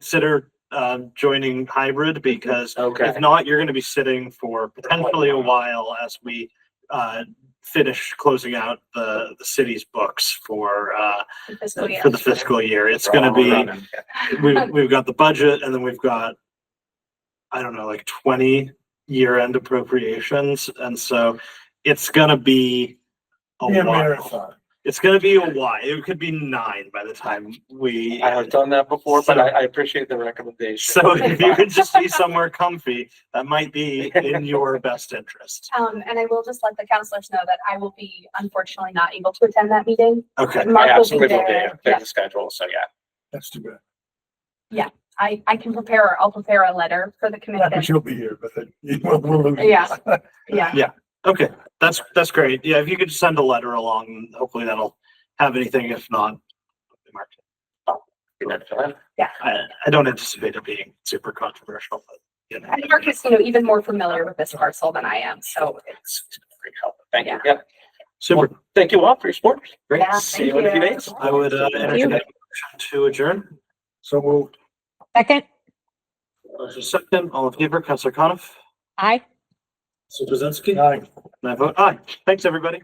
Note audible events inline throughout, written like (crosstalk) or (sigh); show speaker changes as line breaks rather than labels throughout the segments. consider um, joining hybrid because
Okay,
if not, you're going to be sitting for potentially a while as we uh, finish closing out the, the city's books for uh,
Fiscal year.
for the fiscal year. It's going to be we've, we've got the budget and then we've got, I don't know, like twenty year-end appropriations. And so it's gonna be a
Be a
while.
marathon.
It's gonna be a while. It could be nine by the time we.
I have done that before, but I, I appreciate the recommendation.
So (laughs) if you could just be somewhere comfy, that might be in your best interest.
Um, and I will just let the counselors know that I will be unfortunately not able to attend that meeting.
Okay,
I
Mark will be
absolutely will be,
there.
I'm
Yeah,
the schedule, so yeah.
That's too bad.
I, I can prepare, I'll prepare a letter for the
Not that
commission.
you'll be here, but that you will, (laughs) we'll lose. you.
Yeah. Yeah,
okay, that's, that's great. Yeah, if you could just send a letter along, hopefully that'll have anything. If not,
Be there for that.
I, I don't anticipate it being super controversial, but you know.
and Mark is, you know, even more familiar with this parcel than I am, so
It's Great help. Thank you,
Yeah.
yeah.
Super.
Thank you all for your support.
Great.
Yeah,
See you in a few
thank you.
days.
I would uh, entertain a motion to adjourn.
(laughs) So we'll.
Second,
Motion Second, all in favor, Counselor Coniff,
aye.
Counselor Krasinski, and
Aye.
I vote aye. Thanks, everybody.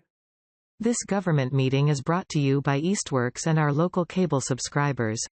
This government meeting is brought to you by Eastworks and our local cable subscribers.